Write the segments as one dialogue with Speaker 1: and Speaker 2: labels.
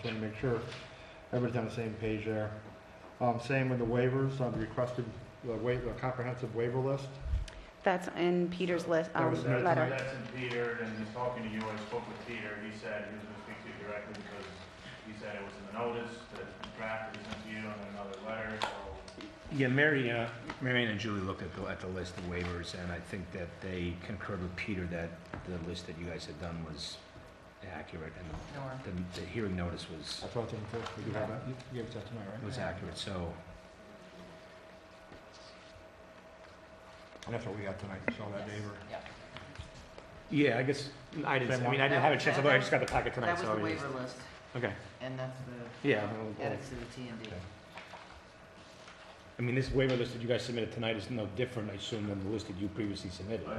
Speaker 1: trying to make sure everybody's on the same page there. Um, same with the waivers, I've requested the wa, the comprehensive waiver list.
Speaker 2: That's in Peter's list,
Speaker 1: That
Speaker 2: um,
Speaker 1: was submitted
Speaker 2: letter.
Speaker 1: tonight?
Speaker 3: That's in Peter, and he's talking to you, I spoke with Peter, he said he was gonna speak to you directly because he said it was in the notice, that it's been drafted, it's sent to you, and then another letter, so.
Speaker 4: Yeah, Mary, uh, Mary Ann and Julie looked at the, at the list of waivers, and I think that they concurred with Peter that the list that you guys had done was accurate, and the, the hearing notice was,
Speaker 1: That's what I think, too. we do have that, you gave us that tonight, right?
Speaker 4: was accurate, so,
Speaker 1: And that's what we got tonight, so that waiver.
Speaker 4: yeah, I guess, I didn't, I mean, I didn't have a chance, to look. I just got the packet tonight,
Speaker 5: That was
Speaker 4: so.
Speaker 5: the
Speaker 4: I just-
Speaker 5: waiver list,
Speaker 4: Okay,
Speaker 5: and that's the
Speaker 4: yeah,
Speaker 5: edits to the T and D.
Speaker 4: Okay. I mean, this waiver list that you guys submitted tonight is no different, I assume, than the list that you previously submitted.
Speaker 3: I, I I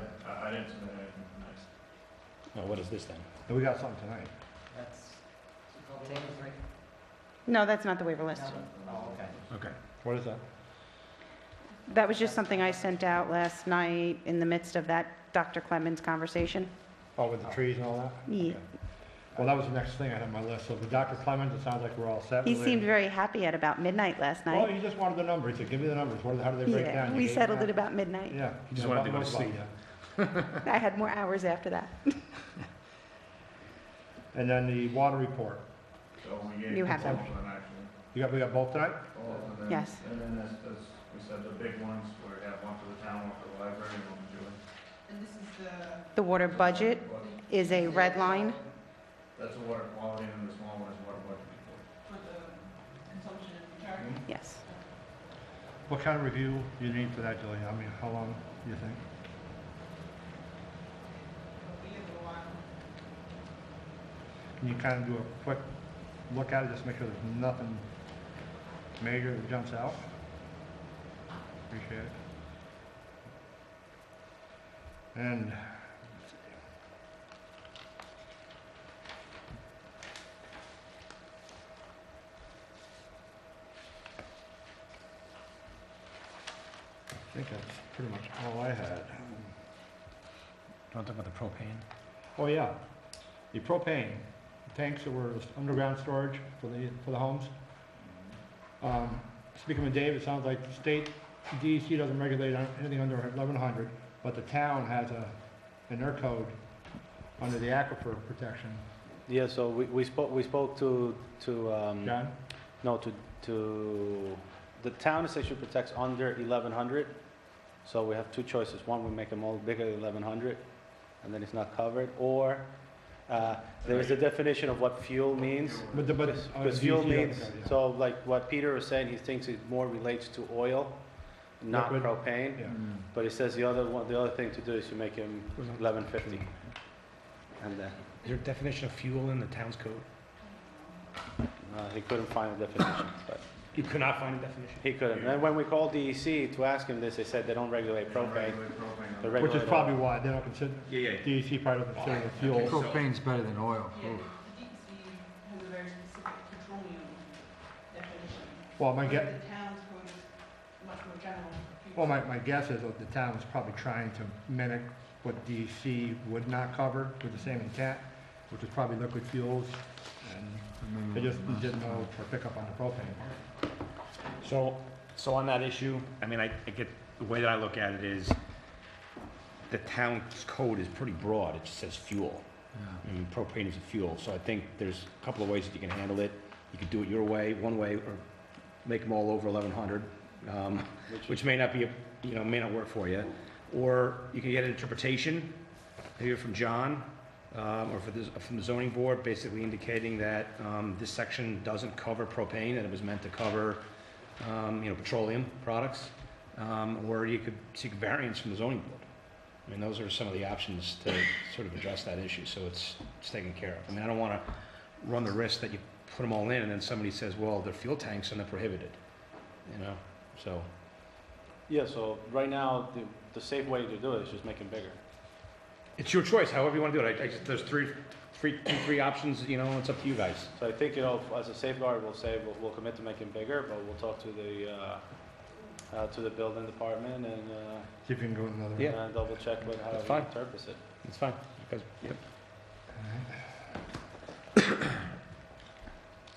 Speaker 3: didn't submit anything tonight.
Speaker 4: Now, what is this then?
Speaker 1: And we got something tonight.
Speaker 5: That's table three?
Speaker 2: No, that's not the waiver list.
Speaker 5: No. Oh, okay.
Speaker 4: Okay.
Speaker 1: What is that?
Speaker 2: That was just something I sent out last night in the midst of that Dr. Clemens conversation.
Speaker 1: Oh, with the trees and all that?
Speaker 2: Ye-
Speaker 1: Well, that was the next thing I had on my list, so the Dr. Clemens, it sounds like we're all set.
Speaker 2: He
Speaker 1: with it.
Speaker 2: seemed very happy at about midnight last
Speaker 1: Well,
Speaker 2: night.
Speaker 1: he just wanted the number, he said, give me the numbers, what, how do they break down?
Speaker 2: Yeah,
Speaker 1: You
Speaker 2: we
Speaker 1: gave him
Speaker 2: settled
Speaker 1: that?
Speaker 2: it about midnight.
Speaker 1: Yeah.
Speaker 4: He just
Speaker 1: Yeah,
Speaker 4: wanted to go
Speaker 1: Buffalo
Speaker 4: to
Speaker 1: Bill,
Speaker 4: sleep.
Speaker 1: yeah.
Speaker 2: I had more hours after that.
Speaker 1: And then the water report.
Speaker 3: So we gave.
Speaker 2: You have them.
Speaker 3: both of them, actually.
Speaker 1: You got, we got both tonight?
Speaker 3: Both of them.
Speaker 2: Yes.
Speaker 3: Oh, And then that's, that's, we said the big ones, where we have one for the town, one for the library, and one for Julie.
Speaker 2: The water budget
Speaker 3: But
Speaker 2: is a red line.
Speaker 3: That's the water quality, and the small one is water budget report.
Speaker 2: Yes.
Speaker 1: What kind of review do you need for that, Julie? I mean, how long do you think? Can you kind of do a quick look at it, just make sure there's nothing major that jumps out? Appreciate it. And, let's see. I think that's pretty much all I had.
Speaker 4: You want to talk about the propane?
Speaker 1: Oh, yeah, the propane tanks that were underground storage for the, for the homes. Um, Speaking with Dave, it sounds like the state DEC doesn't regulate on- anything under eleven hundred, but the town has a, in their code, under the aquifer protection.
Speaker 6: Yeah, so we, we spoke, we spoke to, to, um,
Speaker 1: John?
Speaker 6: no, to, to, the town essentially protects under eleven hundred. So we have two choices. One, we make them all bigger than eleven hundred, and then it's not covered, or, uh, there is a definition of what fuel means.
Speaker 1: But the, but. uh,
Speaker 6: Because fuel
Speaker 1: DEC doesn't
Speaker 6: means,
Speaker 1: cover, yeah.
Speaker 6: so like what Peter was saying, he thinks it more relates to oil, not
Speaker 1: Liquid.
Speaker 6: propane.
Speaker 1: Yeah.
Speaker 6: But he says the other one, the other thing to do is you make him eleven fifty, and then,
Speaker 4: uh, Is there a definition of fuel in the town's code?
Speaker 6: uh, he couldn't find a definition, but.
Speaker 4: You could not find a definition?
Speaker 6: He couldn't. And then when we called DEC to ask him this, they said they don't regulate propane.
Speaker 3: Regulate propane.
Speaker 6: They
Speaker 1: Which is
Speaker 6: regulate
Speaker 1: probably why they don't consider,
Speaker 4: Yeah, yeah.
Speaker 1: DEC probably doesn't consider it fuel.
Speaker 7: Propane's better than oil.
Speaker 1: Well, my guess. Well, my, my guess is that the town is probably trying to mimic what DEC would not cover with the same intent, which is probably liquid fuels, and
Speaker 7: Mm-hmm.
Speaker 1: they just didn't know for pickup on the propane part.
Speaker 4: So, so on that issue, I mean, I, I get, the way that I look at it is, the town's code is pretty broad, it just says fuel. I mean, propane is a fuel, so I think there's a couple of ways that you can handle it. You could do it your way, one way, or make them all over eleven hundred, um, which may not be, a you know, may not work for you. Or you can get an interpretation, maybe from John, um, or for this, from the zoning board, basically indicating that, um, this section doesn't cover propane, and it was meant to cover, um, you know, petroleum products, um, or you could seek variance from the zoning board. I mean, those are some of the options to sort of address that issue, so it's, it's taken care of. I mean, I don't want to run the risk that you put them all in, and then somebody says, well, they're fuel tanks and they're prohibited, you know, so.
Speaker 6: Yeah, so right now, the, the safe way to do it is just make them bigger.
Speaker 4: It's your choice, however you want to do it. I, I just, there's three, three, two, three options, you know, it's up to you guys.
Speaker 6: So I think, you know, as a safeguard, we'll say, we'll, we'll commit to making bigger, but we'll talk to the, uh, uh, to the building department and, uh,
Speaker 1: See if you can go another.
Speaker 4: Yeah.
Speaker 6: and double check with how
Speaker 4: That's
Speaker 6: he
Speaker 4: fine.
Speaker 6: interprets it.
Speaker 4: It's fine, because
Speaker 1: Alright.